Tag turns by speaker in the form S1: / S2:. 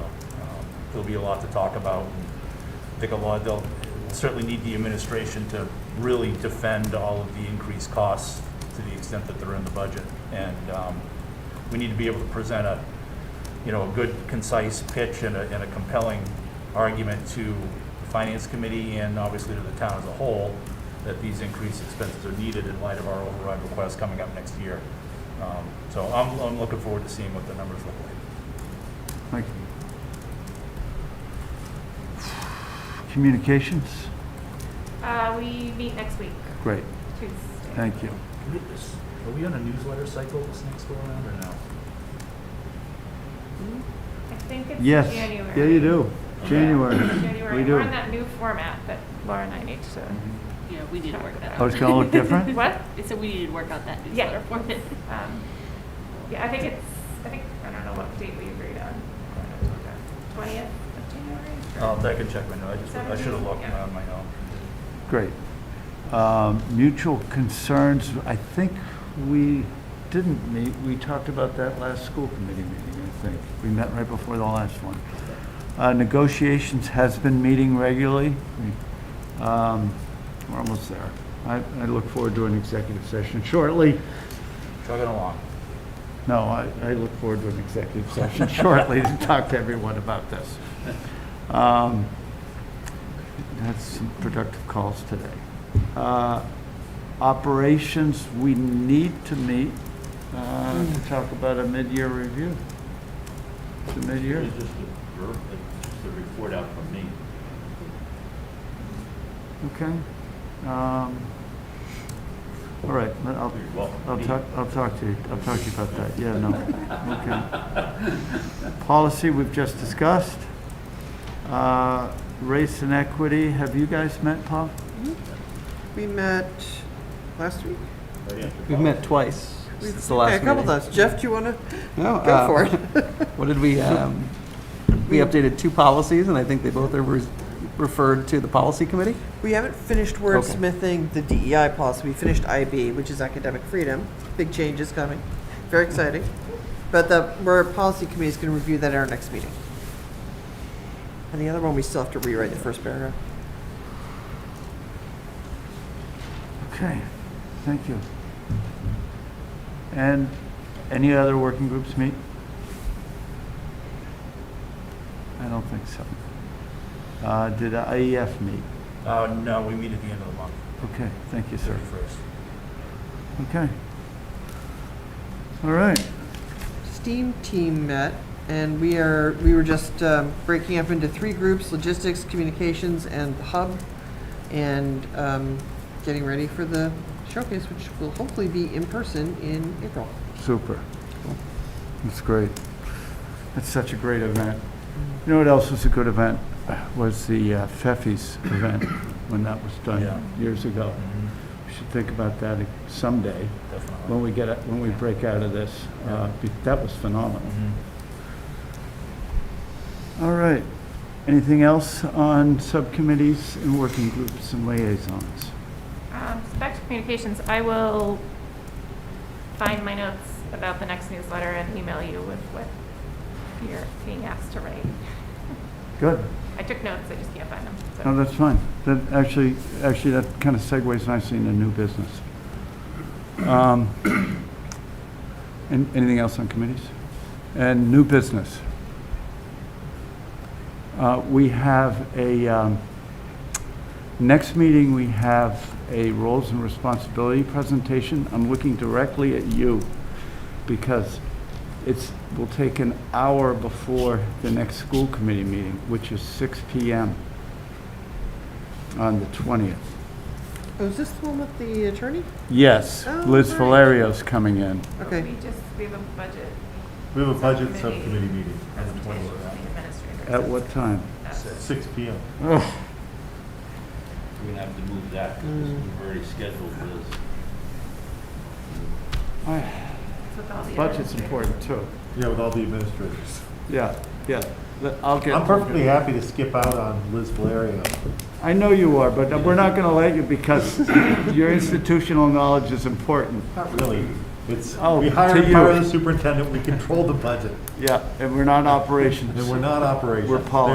S1: Um, there'll be a lot to talk about. and I think a lot, they'll certainly need the administration to really defend all of the increased costs to the extent that they're in the budget. And um, we need to be able to present a, you know, a good concise pitch and a, and a compelling argument to the Finance Committee and obviously to the town as a whole that these increased expenses are needed in light of our override request coming up next year. Um, So I'm, I'm looking forward to seeing what the numbers look like.
S2: Mike? Communications?
S3: Uh, we meet next week,
S2: Great,
S3: Tuesday.
S2: thank you.
S1: Are we on a newsletter cycle this next go around or no?
S3: I think it's
S2: Yes,
S3: January.
S2: yeah, you do, January.
S3: January.
S2: We
S3: We're
S2: do.
S3: on that new format that Laura and I need to.
S4: Yeah, we need to work that
S2: Oh,
S4: out.
S2: it's gonna look different?
S3: What?
S4: I said we needed to work out that
S3: Yeah.
S4: newsletter format.
S3: Um, yeah, I think it's. I think I don't know what date we agreed on. Twentieth of January. Sure.
S1: Uh, I can check my notes. I just, I should have looked
S3: Seventeen, yeah.
S1: on my own.
S2: Great. Um, Mutual concerns, I think we didn't meet, we talked about that last school committee meeting, I think. We met right before the last one. Uh, Negotiations has been meeting regularly. We- um, We're almost there. I, I look forward to an executive session shortly.
S1: Chugging along.
S2: No, I, I look forward to an executive session shortly to talk to everyone about this. Um, That's some productive calls today. Uh, Operations, we need to meet uh, to talk about a mid-year review. It's a mid-year.
S5: It's just a, ver- it's just a report out from me.
S2: Okay. Um, All right, but I'll,
S5: Oh, You're welcome.
S2: I'll talk, I'll talk to you, I'll talk to you about that, yeah, no, okay. Policy we've just discussed. Uh, Race and equity, have you guys met, Paul?
S6: We met last week?
S7: We've met twice since the last
S6: Yeah, A couple
S7: meeting.
S6: times. Jeff, do you want to
S7: No,
S6: go
S7: uh,
S6: for it?
S7: What did we, um, we updated two policies, and I think they both are re- referred to the policy committee?
S6: We haven't finished wordsmithing the DEI policy. We finished IB, which is academic freedom. Big changes coming. Very exciting. But the, our policy committee is going to review that at our next meeting. And the other one, we still have to rewrite the first paragraph.
S2: Okay, thank you. And any other working groups meet? I don't think so. Uh, Did IEF meet?
S1: Uh, no, we meet at the end of the month,
S2: Okay, thank you, sir.
S1: thirty-first.
S2: Okay. All right.
S6: STEAM team met, and we are, we were just um, breaking up into three groups, logistics, communications, and the hub, and um, getting ready for the showcase, which will hopefully be in person in April.
S2: Super. That's great. That's such a great event. You know what else was a good event? Was the uh, Feffy's event, when that was
S1: Yeah.
S2: done years ago.
S5: Mm-hmm.
S2: We should think about that someday,
S1: Definitely.
S2: when we get, when we break out of this. Uh, be- That was phenomenal.
S1: Mhm.
S5: Mm-hmm.
S2: All right. Anything else on subcommittees and working groups and liaisons?
S3: Um, so back to communications. I will find my notes about the next newsletter and email you with what you're being asked to write.
S2: Good.
S3: I took notes. I just can't find them. So.
S2: No, that's fine. That, actually, actually, that kind of segues nicely into new business. Um, an- Anything else on committees? And new business? Uh, We have a, um, next meeting, we have a roles and responsibility presentation. I'm looking directly at you because it's, will take an hour before the next school committee meeting, which is 6 PM on the 20th.
S6: Oh, is this the one with the attorney?
S2: Yes,
S6: Oh,
S2: Liz
S6: right.
S2: Valerio's coming in.
S6: Okay,
S3: We just, we have a budget
S5: We have a budget
S3: Subcommittee.
S5: subcommittee meeting on the
S3: presentation
S5: twentieth,
S3: from the administrator.
S2: At what time?
S5: six P M.
S2: Oh,
S5: We're gonna have to move that, because we've already scheduled this.
S3: With all the
S2: Budget's
S3: administrators.
S2: important, too.
S5: Yeah, with all the administrators.
S2: Yeah, yeah, Let- I'll get.
S5: I'm perfectly happy to skip out on Liz Valerio.
S2: I know you are, but we're not going to let you because your institutional knowledge is important.
S5: Not really. It's,
S2: Oh,
S5: we
S2: to
S5: hired
S2: you.
S5: part of the superintendent, we control the budget,
S2: Yeah, and we're not operations.
S5: and we're not operations.
S2: We're policy.